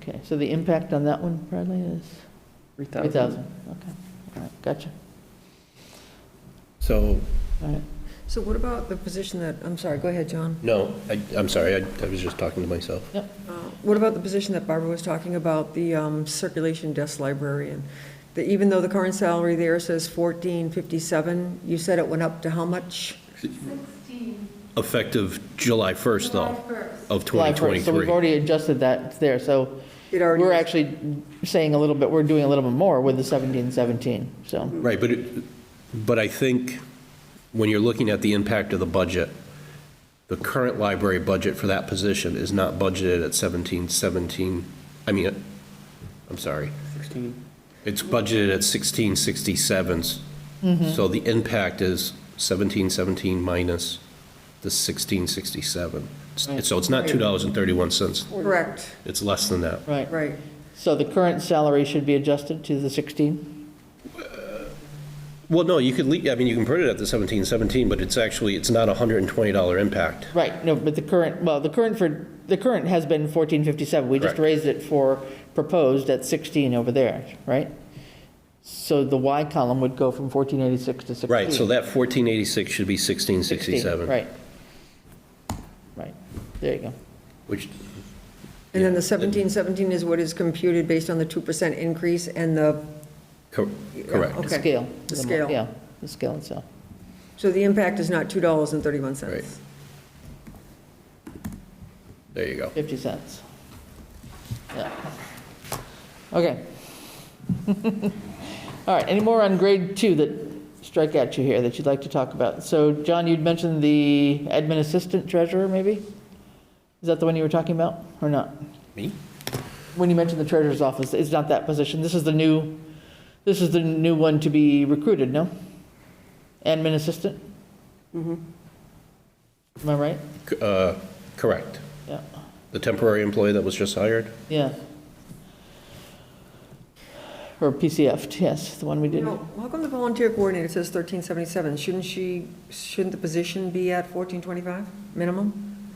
Okay, so the impact on that one, Bradley, is 3,000. 3,000? Okay, all right, gotcha, So, all right. So what about the position that, I'm sorry, go ahead, John. no, I, I'm sorry, I, I was just talking to myself. Uh, What about the position that Barbara was talking about, the um, circulation desk librarian? That even though the current salary there says 1457, you said it went up to how much? 16, Effective July 1st, July though, 1st. of July 1st. So we've 2023. already adjusted that there, so It already we're is. actually saying a little bit, we're doing a little bit more with the 17, 17, so, Right, but, it- but I think when you're looking at the impact of the budget, the current library budget for that position is not budgeted at 17, 17, I mean, I'm sorry. It's budgeted at 1667. So the impact is 1717 minus the 1667. S- So it's not $2.31. Correct, It's less than that. right. right. So the current salary should be adjusted to the 16? Well, no, you could, lea- I mean, you can put it at the 1717, but it's actually, it's not a $120 impact. Right, no, but the current, well, the current for, the current has been 1457. We just Correct. raised it for proposed at 16 over there, right? So the Y column would go from 1486 to 16. Right, so Hmm. that 1486 should be 16, 1667, Right. Right, there you go. which, And then the 1717 is what is computed based on the 2% increase and the, cor- correct. The Okay, scale. the mo- scale. Yeah, the scale itself. so the impact is not $2.31. Right. There you go. 50 cents. Yeah. Okay. All right, any more on grade two that strike at you here that you'd like to talk about? So, John, you'd mentioned the admin assistant treasurer, maybe? Is that the one you were talking about, or not? Me? When you mentioned the treasurer's office, it's not that position, this is the new, this is the new one to be recruited, no? Admin assistant? Am I right? C- uh, Correct. Yeah, The temporary employee that was just hired? yeah. Or PCF, yes, the one we You did. know, how come the volunteer coordinator says 1377? Shouldn't she, shouldn't the position be at 1425 minimum?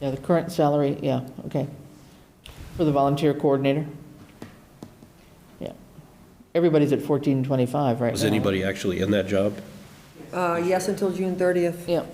Yeah, the current salary, yeah, okay. For the volunteer coordinator? Yeah. Everybody's at 1425 right now. Was Uh-huh. anybody actually in that job? Uh, Yes, until June 30th. Yeah.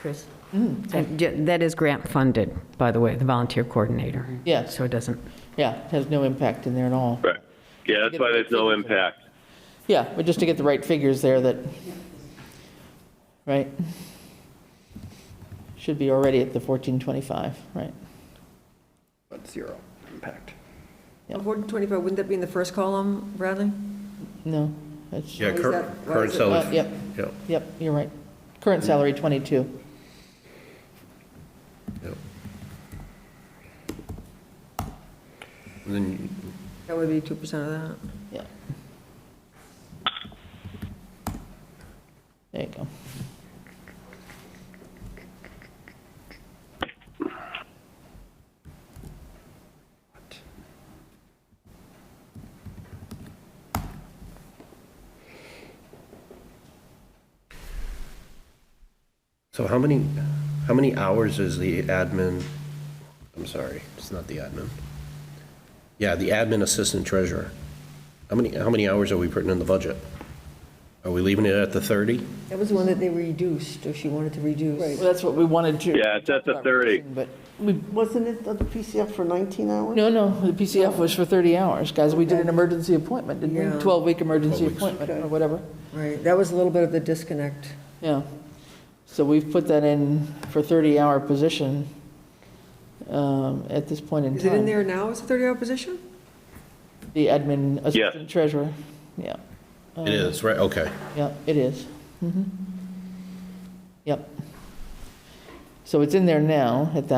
Chris? And ju- Mm, That is grant-funded, by the way, the volunteer coordinator. Yes. So it doesn't, Yeah, it has no impact in there at all. Right. Yeah, that's why there's no impact. Yeah, but just to get the right figures there that, right? Should be already at the 1425, right? That's zero impact. Yep. 125, wouldn't that be in the first column, Bradley? No, that's, Yeah, Why is cur- that- why is current it- uh, salary. yep, Yeah, yep, you're right. Current salary, 22. yeah. And then, That would be 2% of that. Yeah. There you go. so how many, how many hours is the admin, I'm sorry, it's not the admin. Yeah, the admin assistant treasurer. How many, how many hours are we putting in the budget? Are we leaving it at the 30? That was the one that they reduced, or she wanted to reduce. Well, that's what we wanted to. Yeah, it's at the 30. But we, Wasn't it the PCF for 19 hours? no, no, the PCF was for 30 hours, guys. We did an emergency appointment, didn't we? Yeah. 12-week emergency 12 weeks. appointment or whatever. Right, that was a little bit of the disconnect. Yeah. So we've put that in for 30-hour position um, at this point in time. Is it in there now as a 30-hour position? The admin assistant treasurer. Yeah, Uh, It is, right, okay. yeah, it is. Mm-hmm. Mhm. Yep. So it's in there now at that